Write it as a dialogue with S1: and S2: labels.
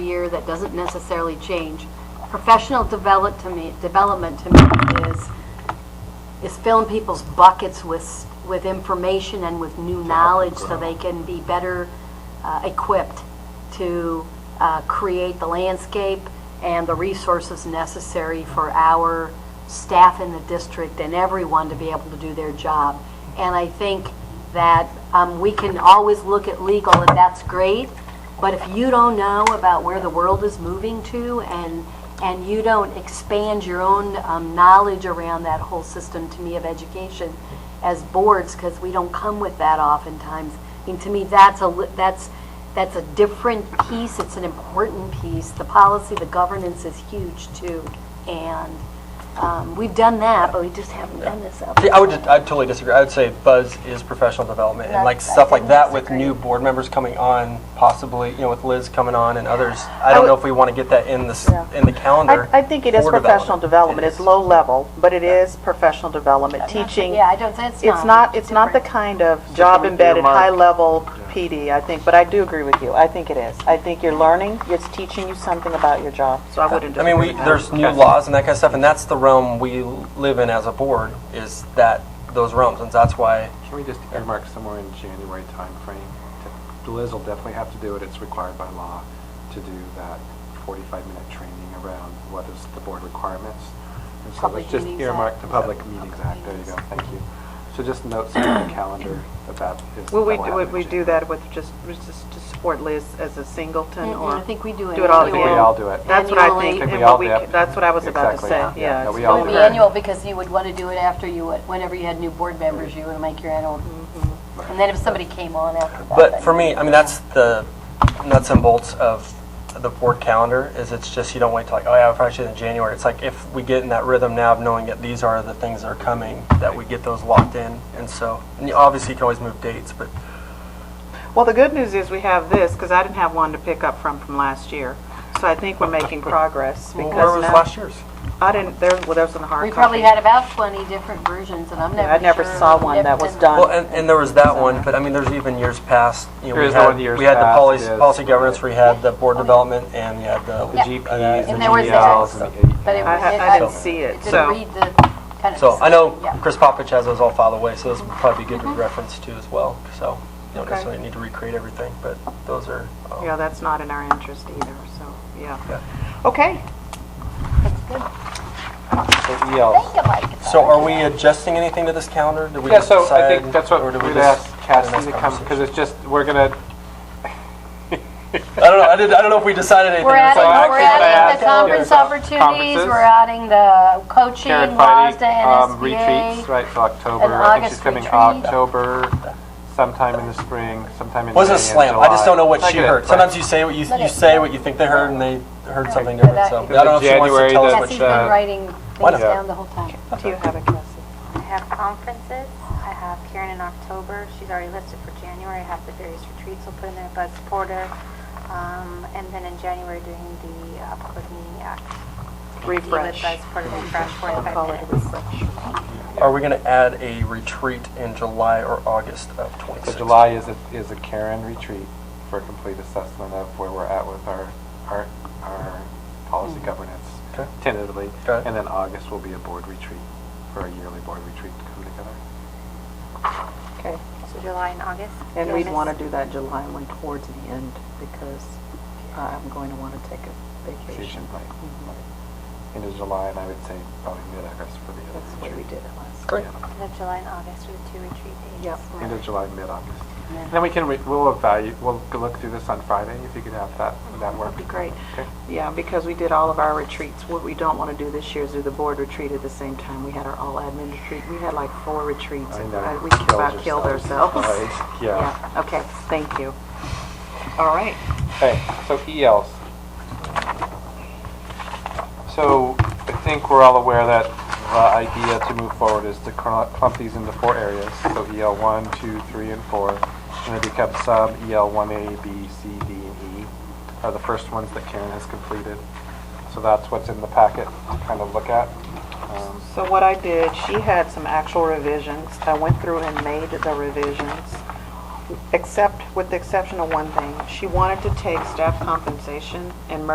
S1: year that doesn't necessarily change. Professional develop to me, development to me is, is filling people's buckets with, with information and with new knowledge so they can be better uh, equipped to uh, create the landscape and the resources necessary for our staff in the district and everyone to be able to do their job. And I think that um, we can always look at legal, and that's great, but if you don't know about where the world is moving to and, and you don't expand your own um, knowledge around that whole system, to me, of education as boards, because we don't come with that oftentimes, I mean, to me, that's a, li- that's, that's a different piece, it's an important piece. The policy, the governance is huge too, and um, we've done that, but we just haven't done this up.
S2: See, I would, just- I totally disagree. I would say buzz is professional development and like
S3: That's- I
S2: stuff like
S3: couldn't
S2: that with
S3: disagree.
S2: new board members coming on, possibly, you know, with Liz coming on and others. I don't know if we want to get that in the, s-
S3: Yeah.
S2: in the calendar.
S3: I, I think it is
S2: for
S3: professional development. It's
S2: It is.
S3: low level, but it is professional development, teaching.
S1: Yeah, I don't, that's not.
S3: It's not, it's not the kind of job embedded, high level PD, I think, but I do agree with you. I think it is. I think you're learning, it's teaching you something about your job, so I wouldn't
S2: I mean, we,
S3: disagree with that.
S2: there's new laws and that kind of stuff, and that's the realm we live in as a board, is that, those realms, and that's why,
S4: Can we just earmark somewhere in January timeframe? to- Liz will definitely have to do it, it's required by law to do that 45-minute training around what is the board requirements. And so
S1: Public
S4: let's just
S1: Meetings
S4: earmark
S1: Act.
S4: the Public Meetings Act, there you go, thank you. So just note something on the calendar that that is.
S3: Will we,
S4: that will
S3: would
S4: happen
S3: we
S4: in
S3: do
S4: January.
S3: that with just, with just to support Liz as a singleton
S1: Mm-mm,
S3: or?
S1: Mm-hmm. I think we do it
S3: Do it all
S1: annual.
S3: together?
S1: I think we
S4: all do it.
S3: That's what I
S1: Annually.
S3: think,
S1: I
S4: think
S3: and
S4: we all
S3: what we,
S4: do it.
S3: c- that's what I was about to
S4: Exactly.
S3: say,
S4: Yeah,
S3: yeah.
S4: no,
S3: it's
S4: we
S1: It
S4: all
S1: would
S3: really
S1: be
S4: do it.
S3: correct.
S1: annual because you would want to do it after you, would- whenever you had new board members, you would make your annual.
S3: Mm-hmm.
S1: And then if somebody came on after that.
S2: but
S1: then-
S2: for me, I mean, that's the nuts and bolts of the board calendar, is it's just, you don't wait till like, oh yeah, I probably should in January. It's like, if we get in that rhythm now of knowing that these are the things that are coming, that we get those locked in, and so, and you- obviously you can always move dates, but
S3: Well, the good news is we have this, because I didn't have one to pick up from from last year. So I think we're making progress
S2: well,
S3: because
S2: where was
S3: now-
S2: last year's?
S3: I didn't, there, well, there's in the hard
S1: We
S3: copy.
S1: probably had about 20 different versions, and I'm never
S3: Yeah, I never
S1: sure
S3: saw
S1: of
S3: one that was
S1: different-
S3: done.
S2: Well, and, and there was that one, but I mean, there's even years past, you know,
S4: There
S2: we
S4: is the
S2: had,
S4: one years
S2: we had the
S4: past,
S2: policy,
S4: yes.
S2: policy governance, we had the board development, and we had
S4: The
S2: the,
S4: GPs, the
S1: And there was
S4: GLs,
S1: that,
S4: and the
S1: but it
S3: I
S1: was.
S3: ha- I didn't see it, so-
S1: Didn't read the kind of.
S2: so I know
S1: yeah. Mm-hmm.
S2: Chris Popovich has those all filed away, so those would probably be good to reference to as well, so. You don't
S3: Okay.
S2: necessarily need to recreate everything, but those are, um,
S3: Yeah, that's not in our interest either, so,
S2: Yeah.
S3: yeah. Okay,
S1: That's good.
S4: the ELs.
S1: Think about it.
S2: so are we adjusting anything to this calendar? Did we
S4: Yeah, so I
S2: decide,
S4: think that's
S2: or
S4: what
S2: do we
S4: we'd
S2: just-
S4: ask Cassie
S2: that's
S4: to come, because
S2: conversation?
S4: it's just, we're gonna,
S2: I don't know, I didn't, I don't know if we decided anything.
S1: We're adding,
S4: I
S1: we're
S4: could
S1: adding the
S4: add
S1: conference
S4: conferences,
S1: opportunities, we're adding the coaching,
S4: Karen
S1: WASDA,
S4: Feige, um,
S1: and SBA.
S4: retreats, right, till October.
S1: An
S4: I think she's
S1: August
S4: coming
S1: retreat.
S4: October, sometime in the spring, sometime in May
S2: Wasn't a
S4: and
S2: slam, I just
S4: July.
S2: don't know what
S4: I
S2: she
S4: get it,
S2: heard.
S4: right.
S2: Sometimes you say what you, you
S1: it-
S2: say what you think they heard, and they heard something
S1: But
S2: different,
S1: that-
S2: so. I don't know if she wants to
S4: January
S2: tell us
S4: that-
S2: what
S1: Cassie's
S2: she
S1: been
S4: uh,
S1: writing things
S2: What?
S1: down the whole time.
S3: do you have a Cassie?
S5: I have conferences. I have Karen in October. She's already listed for January. I have the various retreats I'll put in there, Buzz Porter. Um, and then in January, doing the uh, Public Meeting Act.
S3: Refresh.
S5: With Buzz Porter, refresh
S3: I'll call it a
S5: 45 minutes.
S3: refresh.
S2: Are we going to add a retreat in July or August of
S4: So
S2: 26?
S4: July is a, is a Karen retreat for a complete assessment of where we're at with our, our, our policy
S1: Hmm.
S4: governance
S2: Okay.
S4: tentatively.
S2: Got it.
S4: And then August will be a board retreat, for a yearly board retreat to come together.
S3: Okay,
S5: So July and August.
S3: and
S5: You'll
S3: we'd
S5: miss-
S3: want to do that July one towards the end because I'm going to want to take a vacation. Mm-hmm.
S4: Vacation, right. End of July, and I would say probably mid-August for the
S3: That's the
S4: other
S3: way we did
S4: retreat.
S3: it last.
S2: Great.
S5: The July and August are the two retreat dates.
S3: Yep.
S4: End of July, mid-August. And then we can, re- we'll evaluate, we'll go look through this on Friday, if you could have that, would that work?
S3: That'd be great.
S4: Okay.
S3: Yeah, because we did all of our retreats. What we don't want to do this year is do the board retreat at the same time. We had our all admin retreat. We had like four retreats.
S4: I
S3: and
S4: know.
S3: I- We about
S4: Killed
S3: killed
S4: yourself.
S3: ourselves.
S4: Right, yeah.
S3: Yeah, okay, thank you. All right.
S4: Okay, so E ELs. So I think we're all aware that the idea to move forward is to cl- clump these into four areas. So EL one, two, three, and 4. And they become sub E EL 1A, B, C, D, and E are the first ones that Karen has completed. So that's what's in the packet to kind of look at. Um,
S3: So what I did, she had some actual revisions. I went through and made the revisions, except, with the exception of one thing. She wanted to take staff compensation and merge